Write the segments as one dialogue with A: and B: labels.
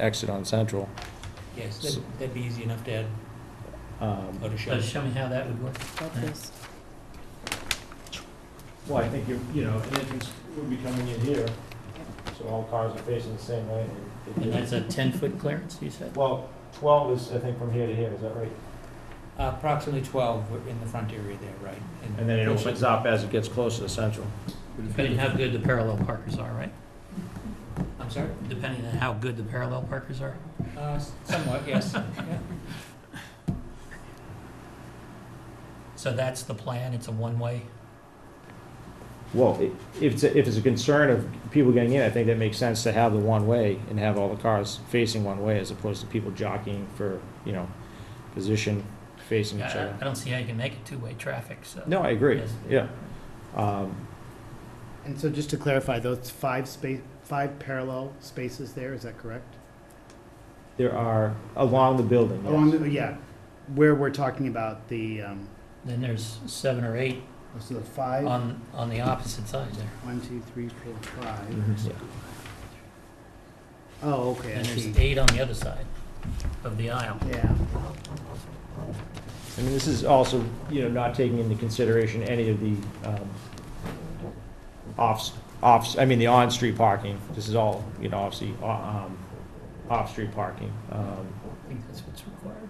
A: exit on Central.
B: Yes,
A: So-
B: that'd- that'd be easy enough to add,
A: Um,
B: or to show.
C: Just show me how that would work.
D: Well, I think you, you know, an entrance would be coming in here, so all cars are facing the same way. and
C: And
D: it-
C: that's a ten-foot clearance, you said?
D: Well, twelve is, I think, from here to here, is that right?
B: Uh, Approximately 12 were in the front area there, right?
D: And then it opens up as it gets closer to Central.
C: Depending how good the parallel parkers are, right?
B: I'm sorry?
C: Depending on how good the parallel parkers are?
B: Uh, s- Somewhat, yes. Yeah.
C: So that's the plan, it's a one-way?
A: Well, i- if it's, a- if it's a concern of people getting in, I think that makes sense to have the one-way and have all the cars facing one way as opposed to people jockeying for, you know, position facing each
C: I
A: other.
C: I don't see how you can make it two-way traffic, so.
A: No, I agree,
C: Yes.
A: yeah. Um,
E: And so just to clarify, those five space, five parallel spaces there, is that correct?
A: There are, along the building,
E: Along,
A: yes.
E: the oh, yeah, where we're talking about the, um, oh,
C: Then there's seven or eight
E: so the five,
F: Uh,
C: on, on the opposite side there.
E: one, two, three, four, five.
A: Mhm, yeah.
E: Oh, okay, I
C: And there's
E: see.
C: eight on the other side of the aisle.
E: Yeah,
A: I mean, this is also, you know, not taking into consideration any of the um, offs, offs, I mean, the on-street parking. This is all, you know, obviously, o- um, off-street parking. Um,
C: I think that's what's required.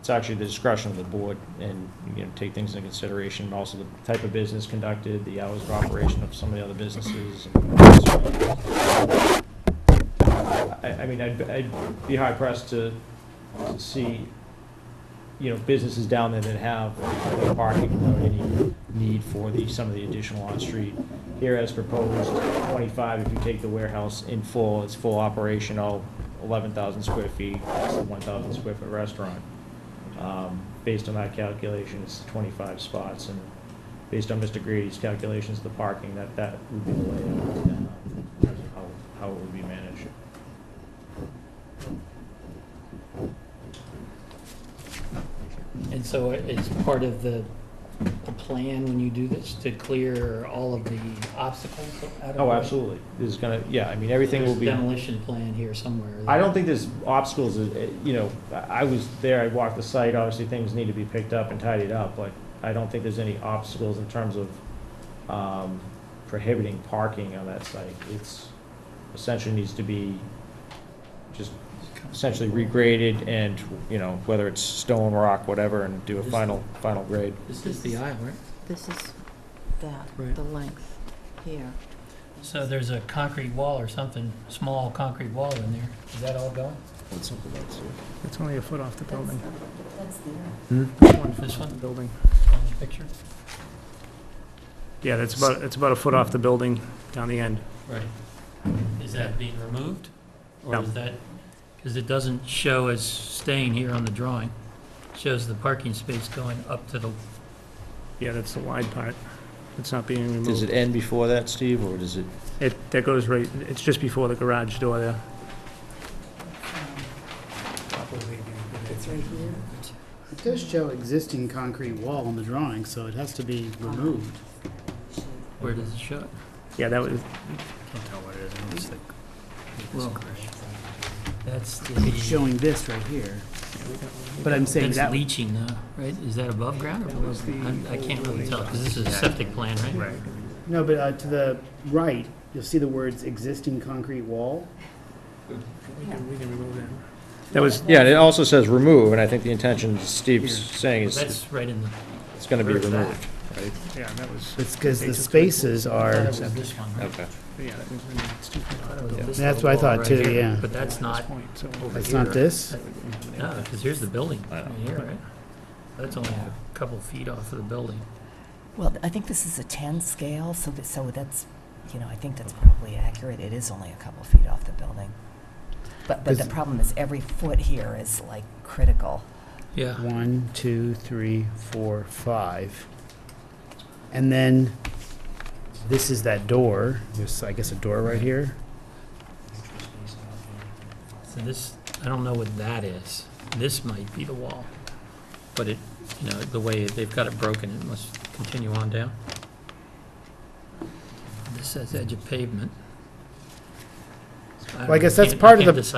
A: It's actually the discretion of the board and, you know, take things into consideration, and also the type of business conducted, the hours of operation of some of the other businesses. and- I, I mean, I'd, I'd be high pressed to to see, you know, businesses down there that have no parking without any need for the, some of the additional on-street. Here as proposed, twenty-five, if you take the warehouse in full, it's full operation, all eleven thousand square feet, it's a one thousand square foot restaurant. Um, Based on that calculation, it's 25 spots, and based on Mr. Grady's calculations, the parking, that, that would be the layout, uh, in terms of how, how it would be managed.
C: And so it's part of the, the plan when you do this to clear all of the obstacles out of the
A: Oh,
C: way?
A: absolutely. There's gonna, yeah, I mean, everything will
C: There's
A: be.
C: Demolition plan here somewhere.
A: I don't think there's obstacles, uh, uh, you know, I I was there, I walked the site, obviously things need to be picked up and tidied up, but I don't think there's any obstacles in terms of um, prohibiting parking on that site. It's essentially needs to be just essentially regraded and, you know, whether it's stone, rock, whatever, and do a final, final grade.
C: This is the aisle, right?
G: This is that,
C: Right.
G: the length here.
C: So there's a concrete wall or something, small concrete wall in there. Is that all going?
F: It's only a foot off the building.
G: That's there.
C: This one,
F: Building.
C: on the picture?
F: Yeah, that's about, it's about a foot off the building down the end.
C: Right. Is that being removed? Or
F: No.
C: is that, because it doesn't show as staying here on the drawing. It Shows the parking space going up to the,
F: Yeah, that's the wide part. It's not being
A: Does
F: removed.
A: it end before that, Steve, or does it?
F: It, that goes right, it's just before the garage door there.
B: Probably be-
G: It's right here.
E: it does show existing concrete wall on the drawing, so it has to be removed.
C: where does it show? it?
F: Yeah, that was,
E: Can't tell what it is, I don't think.
C: Well, that's
E: It's
C: the,
E: showing this right here, but I'm saying
C: that's
E: that,
C: leaching though, right? Is that above ground or
F: That
C: below
F: was the
C: ground? I I can't really
F: old-
C: tell, because this is a septic plan, right?
F: right.
E: no, but uh, to the right, you'll see the words existing concrete wall.
F: We can remove that.
A: That was. Yeah, and it also says remove, and I think the intention Steve's
F: Here.
A: saying is
C: That's right in the,
A: it's gonna be
F: Where's that?
A: removed.
F: Yeah, that was,
E: It's because
F: They
E: the
F: took it.
E: spaces
C: I thought
E: are,
C: it was this one, right?
A: Okay.
F: yeah, that was, it's too
C: I
F: far
C: thought it was this
E: That's
C: little
E: what I
C: wall
E: thought
C: right
E: too,
C: here,
E: yeah.
C: But that's
F: at
C: not,
F: this point, so.
E: it's not this,
C: no, because here's the building,
A: I know.
C: right here, right? That's only a couple feet off of the building.
H: Well, I think this is a 10 scale, so that, so that's, you know, I think that's probably accurate. It is only a couple feet off the building. But, but the
E: Does-
H: problem is every foot here is like critical.
C: Yeah.
E: One, two, three, four, five. And then this is that door. There's, I guess, a door right here.
C: So this, I don't know what that is. This might be the wall. But it, you know, the way they've got it broken, it must continue on down. This says edge of pavement.
B: don't
C: Well, I guess
B: know.
C: that's part of
B: can't
C: the-
B: decipher